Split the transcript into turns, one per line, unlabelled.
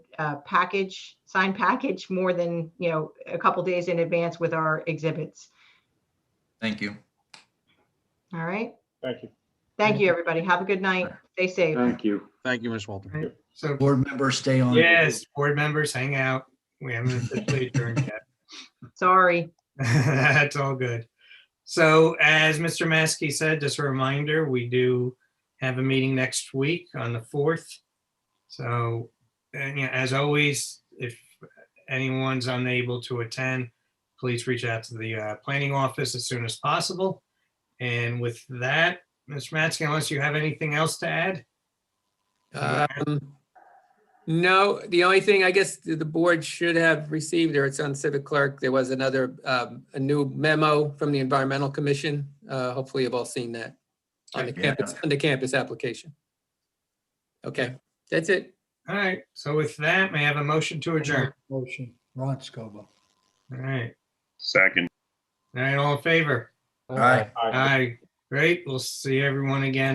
uh, package, sign package more than, you know, a couple days in advance with our exhibits.
Thank you.
All right.
Thank you.
Thank you, everybody. Have a good night. Stay safe.
Thank you.
Thank you, Ms. Walter.
So,
Board members stay on.
yes, board members hang out. We haven't officially adjourned yet.
Sorry.
That's all good. So as Mr. Maskey said, just a reminder, we do have a meeting next week on the 4th. So, and yeah, as always, if anyone's unable to attend, please reach out to the uh, planning office as soon as possible. And with that, Mr. Maskey, unless you have anything else to add?
Um, No, the only thing, I guess, the the board should have received, or it's on Civic Clerk, there was another, um, a new memo from the Environmental Commission. Uh, Hopefully you've all seen that on the
Yeah.
campus, on the campus application. Okay, that's it.
All right, so with that, may I have a motion to adjourn?
Motion, Ron Scoba.
All right,
Second.
all right, all in favor?
All right.
All right, great. We'll see everyone again.